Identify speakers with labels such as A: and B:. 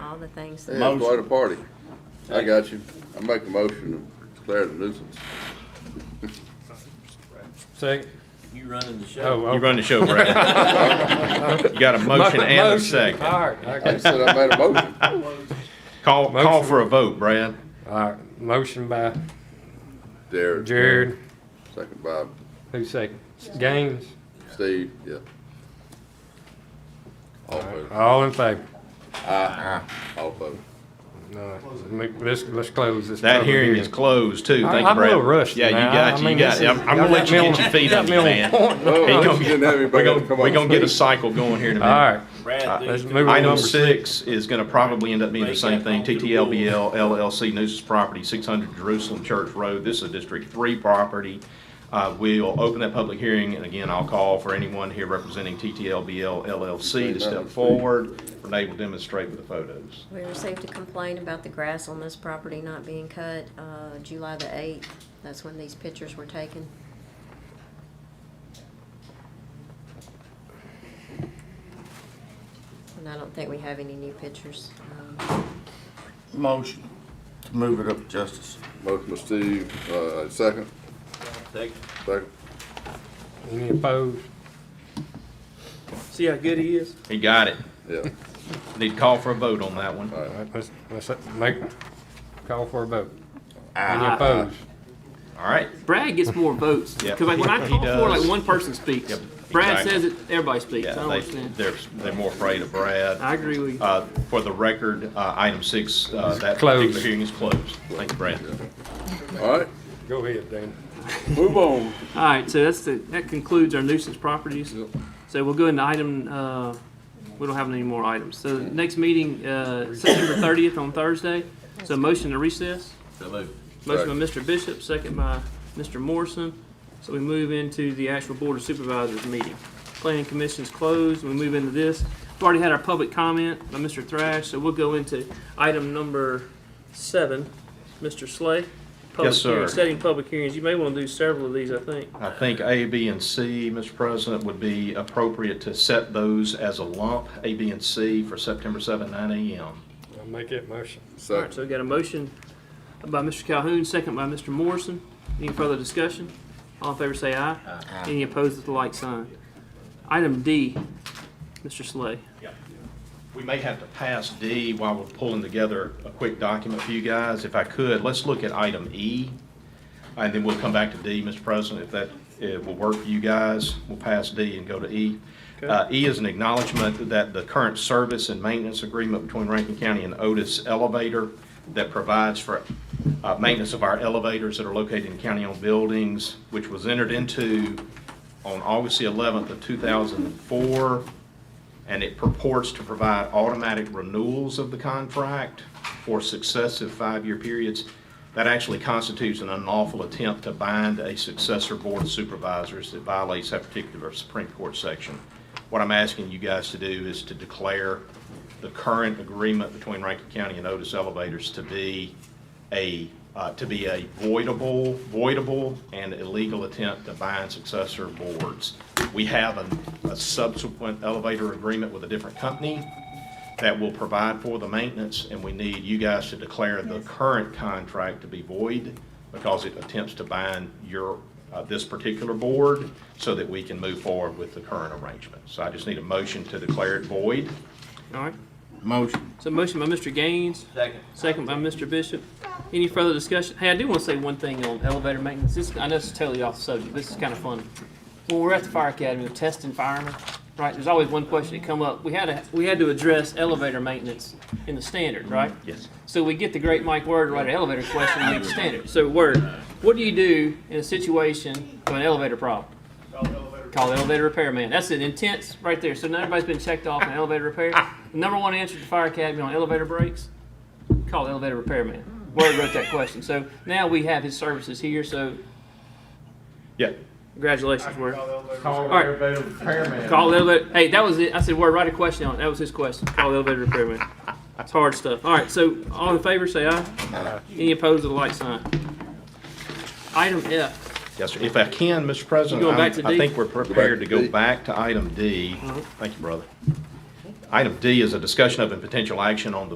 A: all the things. that-
B: Yeah, quite a party. I got you. I make a motion to declare it a nuisance.
C: Second.
D: You running the show.
C: Oh,
E: You
C: okay.
E: run the show, Brad. You got a motion and a
C: Motion. All
E: second.
C: right, I
B: I just
C: guess.
B: said I made a motion.
E: Call, call
C: Motion.
E: for a vote, Brad.
C: All right, motion by
B: Jared.
C: Jared,
B: Second by
C: who's second? Gaines,
B: Steve, yeah. All voted.
C: all in favor?
B: Aye. All voted.
C: All right, let- Let's, let's close this.
E: That
C: public
E: hearing is closed too.
C: I-
E: Thank you,
C: I'm
E: Brad.
C: a little rushed
E: Yeah, you
C: now.
E: got,
C: I
E: you
C: mean,
E: got,
C: this is-
E: I'm I'm gonna let you get your feet
C: Got
E: under
C: me
E: you,
C: on
E: man.
C: point.
B: Oh,
E: He gonna-
B: you didn't have
E: We're
B: anybody to
E: gonna,
B: come
E: we're
B: on
E: gonna get a
B: stage.
E: cycle going here in a
C: All
E: minute.
C: right,
D: Brad,
C: let's
D: dude,
C: move on to
E: Item
C: number six.
E: six is gonna probably end up being the same thing, TTLBL LLC nuisance property, six hundred Jerusalem Church Road. This is a District Three property. Uh, we'll open that public hearing, and again, I'll call for anyone here representing TTLBL LLC to step forward. Renee will demonstrate with the photos.
A: We received a complaint about the grass on this property not being cut, uh, July the eighth. That's when these pictures were taken. And I don't think we have any new pictures. Um,
F: Motion to move it up to justice.
B: Motion by Steve, uh, second,
D: Take-
B: second.
C: Any opposed?
D: See how good he is?
E: He got it.
B: Yeah.
E: Need to call for a vote on that one.
C: All right, let's, let's make, call for a vote. Any
E: Ah.
C: opposed?
E: All right.
G: Brad gets more votes
E: Yep.
G: because like when I
E: He
G: call for
E: does.
G: like one person speaks.
E: Yep,
G: Brad
E: exactly.
G: says it, everybody speaks. I don't
E: Yeah, they,
G: understand.
E: they're, they're more afraid of Brad.
G: I agree with you.
E: Uh, For the record, uh, item six, uh, that
C: closed.
E: particular hearing is closed. Thank you, Brad.
B: All right,
C: Go ahead, Dan.
B: move on.
G: All right, so that's the, that concludes our nuisance properties. So we'll go into item. Uh, we don't have any more items. So the next meeting uh, September 30th on Thursday. So motion to recess.
D: So moved.
G: Motion by Mr. Bishop, second by Mr. Morrison. So we move into the actual Board of Supervisors meeting. Planning Commission's closed, we move into this. We've already had our public comment by Mr. Thrash, so we'll go into item number seven. Mr. Slay? public
E: Yes, sir.
G: hearings, Setting public hearings, you may want to do several of these, I think.
E: I think A, B, and C, Mr. President, would be appropriate to set those as a lump, A, B, and C, for September 7, 9 a.m.
C: I'll make that motion.
G: All right,
B: Second,
G: so we got a motion by Mr. Calhoun, second by Mr. Morrison. Any further discussion? All in favor say aye. Any opposed with the like sign. Item D, Mr. Slay.
E: We may have to pass D while we're pulling together a quick document for you guys. If I could, let's look at item E, and then we'll come back to D, Mr. President, if that uh, will work for you guys. We'll pass D and go to E. Uh, E is an acknowledgement that the current service and maintenance agreement between Rankin County and Otis Elevator that provides for uh, maintenance of our elevators that are located in county-owned buildings, which was entered into on August the 11th of 2004 and it purports to provide automatic renewals of the contract for successive five-year periods. That actually constitutes an unlawful attempt to bind a successor board of supervisors that violates that particular Supreme Court section. What I'm asking you guys to do is to declare the current agreement between Rankin County and Otis Elevators to be a, uh, to be a voidable, voidable and illegal attempt to bind successor boards. We have a, a subsequent elevator agreement with a different company that will provide for the maintenance, and we need you guys to declare the current contract to be void because it attempts to bind your, uh, this particular board so that we can move forward with the current arrangement. So I just need a motion to declare it void.
G: All right,
F: Motion.
G: so motion by Mr. Gaines,
D: Second.
G: second by Mr. Bishop. Any further discussion? Hey, I do want to say one thing on elevator maintenance. This, I know this is totally off subject, but this is kind of funny. When we're at the fire academy, we're testing firemen, right? There's always one question that come up. We had to, we had to address elevator maintenance in the standard, right?
E: Yes.
G: So we get the great Mike Word to write an elevator question and make standard. So Word, what do you do in a situation of an elevator problem? Call the elevator repairman. That's an intense right there. So now everybody's been checked off on elevator repair. The number one answer to fire academy on elevator breaks, call the elevator repairman. Word wrote that question. So now we have his services here. So
E: Yeah.
G: congratulations, Word.
C: Call
G: All right.
C: elevator repairman.
G: Call the elevator. Hey, that was it. I said, Word, write a question on it. That was his question. Call the elevator repairman. It's hard stuff. All right, so all in favor, say aye. Any opposed to the light sign? Item F.
E: Yes, sir. If I can, Mr. President,
G: You going back
E: I'm-
G: to
E: I
G: D? Uh-huh.
E: think we're prepared to
B: Go back to
E: go
B: D.
E: back to item D. Thank you, brother. Item D is a discussion of and potential action on the